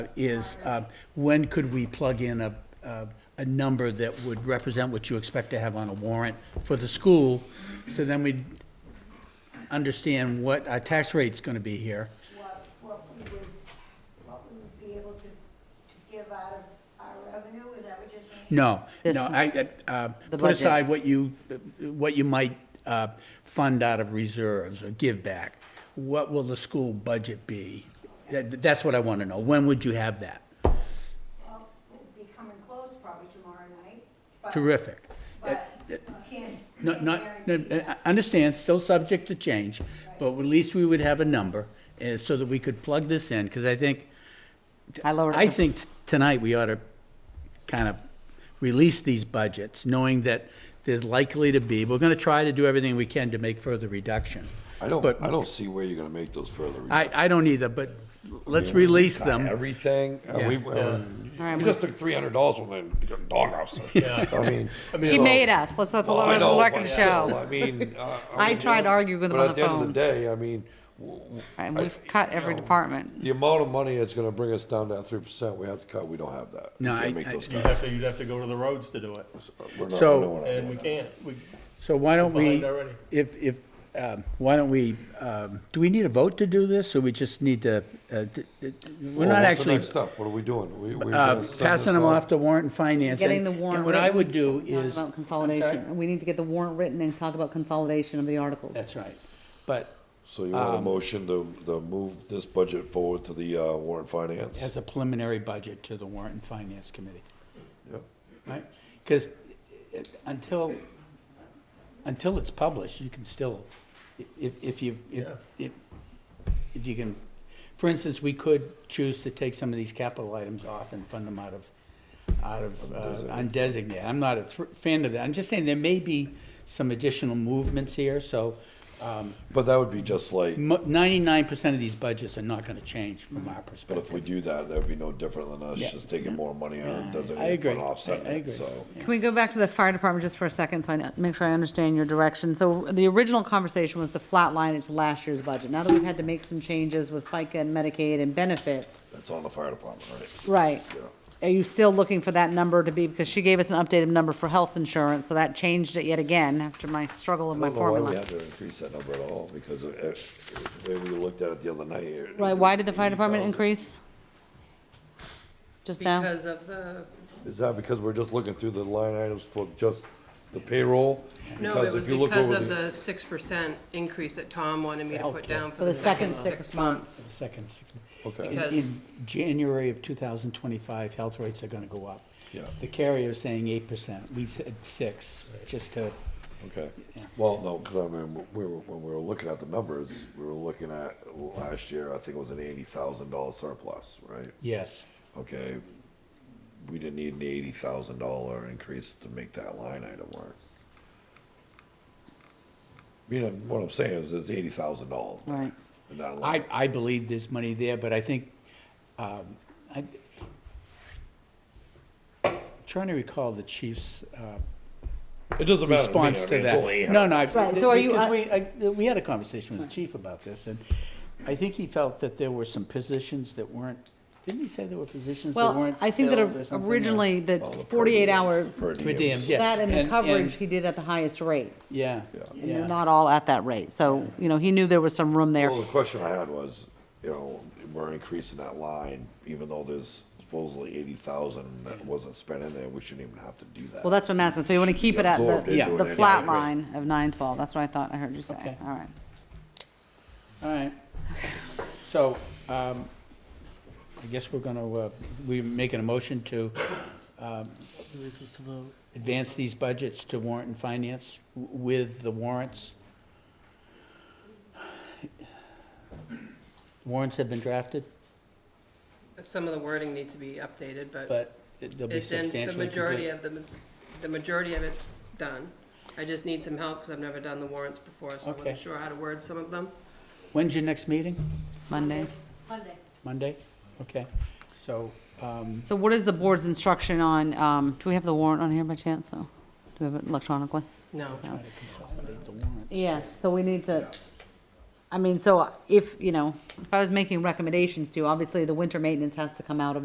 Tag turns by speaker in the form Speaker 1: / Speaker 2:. Speaker 1: is uh, when could we plug in a, a- a number that would represent what you expect to have on a warrant for the school? So then we'd understand what our tax rate's gonna be here.
Speaker 2: what, what we would, what we would be able to, to give out of our revenue, is that what you're saying?
Speaker 1: No,
Speaker 3: This-
Speaker 1: no, I, I, uh,
Speaker 3: The
Speaker 1: put
Speaker 3: budget.
Speaker 1: aside what you, what you might uh, fund out of reserves or give back. What will the school budget be? That, that's what I wanna know. When would you have that?
Speaker 2: Well, we'll be coming close probably tomorrow night, but,
Speaker 1: Terrific.
Speaker 2: but you can't,
Speaker 1: No,
Speaker 2: can't
Speaker 1: not,
Speaker 2: guarantee
Speaker 1: no, I- I understand, still subject to change, but at least we would have a number, uh, so that we could plug this in, because I think,
Speaker 3: I lowered it.
Speaker 1: I think t- tonight we ought to kind of release these budgets, knowing that there's likely to be, we're gonna try to do everything we can to make further reduction.
Speaker 4: I don't,
Speaker 1: But-
Speaker 4: I don't see where you're gonna make those further.
Speaker 1: I, um, I don't either, but let's release them.
Speaker 4: Everything, uh, we, uh,
Speaker 3: right,
Speaker 4: we
Speaker 3: we-
Speaker 4: just took three hundred dollars from the dog house. I mean.
Speaker 3: He made us. Let's let the
Speaker 4: Well, Oh, I
Speaker 3: Lord of the
Speaker 4: know,
Speaker 3: record
Speaker 4: but still,
Speaker 3: show.
Speaker 4: I mean. uh,
Speaker 3: I
Speaker 4: mean,
Speaker 3: tried to argue with him on the
Speaker 4: But
Speaker 3: phone.
Speaker 4: at the end of the day, I mean, w- w-
Speaker 3: And we've cut every department.
Speaker 4: the amount of money that's gonna bring us down to that three percent we have to cut, we don't have that. We
Speaker 1: No,
Speaker 4: can't
Speaker 1: I-
Speaker 4: make
Speaker 1: I-
Speaker 4: those
Speaker 5: You'd
Speaker 4: cuts.
Speaker 5: have to, you'd have to go to the roads to do it,
Speaker 4: We're not-
Speaker 1: So-
Speaker 4: we're not-
Speaker 5: and we can't, we,
Speaker 1: So why don't we,
Speaker 5: Behind already.
Speaker 1: if, if, um, why don't we, um, do we need a vote to do this, or we just need to, uh, d- d- we're
Speaker 4: Well,
Speaker 1: not
Speaker 4: what's the
Speaker 1: actually
Speaker 4: next step? What are we doing? We- we're
Speaker 1: uh,
Speaker 4: gonna send
Speaker 1: passing
Speaker 4: this
Speaker 1: them
Speaker 4: out?
Speaker 1: off to warrant and finance. and-
Speaker 3: Getting the warrant
Speaker 1: And what I
Speaker 3: written.
Speaker 1: would do
Speaker 3: Talk
Speaker 1: is.
Speaker 3: about
Speaker 1: I'm sorry?
Speaker 3: consolidation. We need to get the warrant written and talk about consolidation of the articles.
Speaker 1: That's right. But
Speaker 4: So you
Speaker 1: um,
Speaker 4: want a motion to, to move this budget forward to the, uh, warrant finance?
Speaker 1: as a preliminary budget to the warrant and finance committee,
Speaker 4: Yep.
Speaker 1: right? Because until, until it's published, you can still, i- if, if you, if, if if you can, for instance, we could choose to take some of these capital items off and fund them out of, out of, uh, undesignated. I'm not a thr- fan of that. I'm just saying there may be some additional movements here, so, um,
Speaker 4: But that would be just like,
Speaker 1: Ninety-nine percent of these budgets are not gonna change from our
Speaker 4: But if we
Speaker 1: perspective.
Speaker 4: do that, that'd be no different than us
Speaker 1: Yeah.
Speaker 4: just taking more money out of
Speaker 1: I
Speaker 4: designated
Speaker 1: agree.
Speaker 4: fund offsetting
Speaker 1: I- I
Speaker 4: it,
Speaker 1: agree.
Speaker 4: so.
Speaker 3: Can we go back to the fire department just for a second, so I n- make sure I understand your direction? So the original conversation was to flatline it to last year's budget. Now that we've had to make some changes with FICA and Medicaid and benefits,
Speaker 4: That's on the fire department, right?
Speaker 3: right?
Speaker 4: Yeah.
Speaker 3: Are you still looking for that number to be, because she gave us an updated number for health insurance, so that changed it yet again after my struggle with
Speaker 4: I
Speaker 3: my
Speaker 4: don't know why we
Speaker 3: formula.
Speaker 4: had to increase that number at all, because it- it- the way we looked at it the other night. it-
Speaker 3: Right, why did the fire department
Speaker 4: 80,000.
Speaker 3: increase? Just now?
Speaker 6: Because of the,
Speaker 4: Is that because we're just looking through the line items for just the payroll?
Speaker 6: no,
Speaker 4: Because
Speaker 6: it was
Speaker 4: if you look
Speaker 6: because
Speaker 4: over
Speaker 6: of the six percent increase that Tom wanted me to put down
Speaker 3: For
Speaker 6: for
Speaker 3: the
Speaker 6: the
Speaker 3: second
Speaker 6: second
Speaker 3: six
Speaker 6: six months.
Speaker 1: Second. six-
Speaker 4: Okay.
Speaker 1: In,
Speaker 6: Because-
Speaker 1: in January of two thousand twenty-five, health rates are gonna go up.
Speaker 4: Yeah.
Speaker 1: The carrier is saying eight percent, we said six, just to,
Speaker 4: Okay, well, no, because I mean, we were, when we were looking at the numbers, we were looking at last year, I think it was an eighty thousand dollar surplus, right?
Speaker 1: yes.
Speaker 4: okay, we didn't need an eighty thousand dollar increase to make that line item work. You know, what I'm saying is, it's eighty thousand dollars.
Speaker 3: Right.
Speaker 4: In that
Speaker 1: I,
Speaker 4: line,
Speaker 1: I believe there's money there, but I think, um, I, trying to recall the chief's, uh,
Speaker 4: it doesn't matter to me, I
Speaker 1: response to
Speaker 4: mean, it's only
Speaker 1: that. No, no, I-
Speaker 3: Right, so are you- uh,
Speaker 1: because we, I- we had a conversation with the chief about this, and I think he felt that there were some positions that weren't, didn't he say there were positions that
Speaker 3: Well,
Speaker 1: weren't
Speaker 3: I think that
Speaker 1: filled or something, or-
Speaker 3: originally, the
Speaker 4: all the per
Speaker 3: forty-eight
Speaker 4: diem-
Speaker 3: hour,
Speaker 1: Per
Speaker 4: Per
Speaker 1: diem,
Speaker 4: diem.
Speaker 1: yeah.
Speaker 3: that and the coverage,
Speaker 1: and-
Speaker 3: he did at the highest rates.
Speaker 1: Yeah,
Speaker 3: And they're
Speaker 1: yeah.
Speaker 3: not all at that rate, so, you know, he knew there was some room there.
Speaker 4: Well, the question I had was, you know, we're increasing that line, even though there's supposedly eighty thousand that wasn't spent in there, we shouldn't even have to do that.
Speaker 3: Well, that's what I'm asking, so you wanna keep it at
Speaker 4: Absorbed
Speaker 3: the,
Speaker 4: into
Speaker 1: Yeah.
Speaker 4: it
Speaker 3: the
Speaker 4: anyway.
Speaker 3: flat line of nine twelve, that's what I thought I heard you say,
Speaker 1: Okay.
Speaker 3: all right.
Speaker 1: All right. So, um, I guess we're gonna, uh, we're making a motion to, um, advance these budgets to warrant and finance w- with the warrants. Warrants have been drafted?
Speaker 6: Some of the wording needs to be updated, but
Speaker 1: but it- they'll be
Speaker 6: it's in, the
Speaker 1: substantially
Speaker 6: majority
Speaker 1: complete.
Speaker 6: of them, is- the majority of it's done. I just need some help because I've never done the warrants before, so I
Speaker 1: Okay.
Speaker 6: wasn't sure how to word some of them.
Speaker 1: When's your next meeting?
Speaker 3: Monday.
Speaker 2: Monday.
Speaker 1: Monday? Okay, so, um,
Speaker 3: So what is the board's instruction on, um, do we have the warrant on here by chance, so, do we have it electronically?
Speaker 6: No.
Speaker 1: try to consolidate the warrants.
Speaker 3: Yes, so we need to, I mean, so if, you know, if I was making recommendations to, you, obviously the winter maintenance has to come out of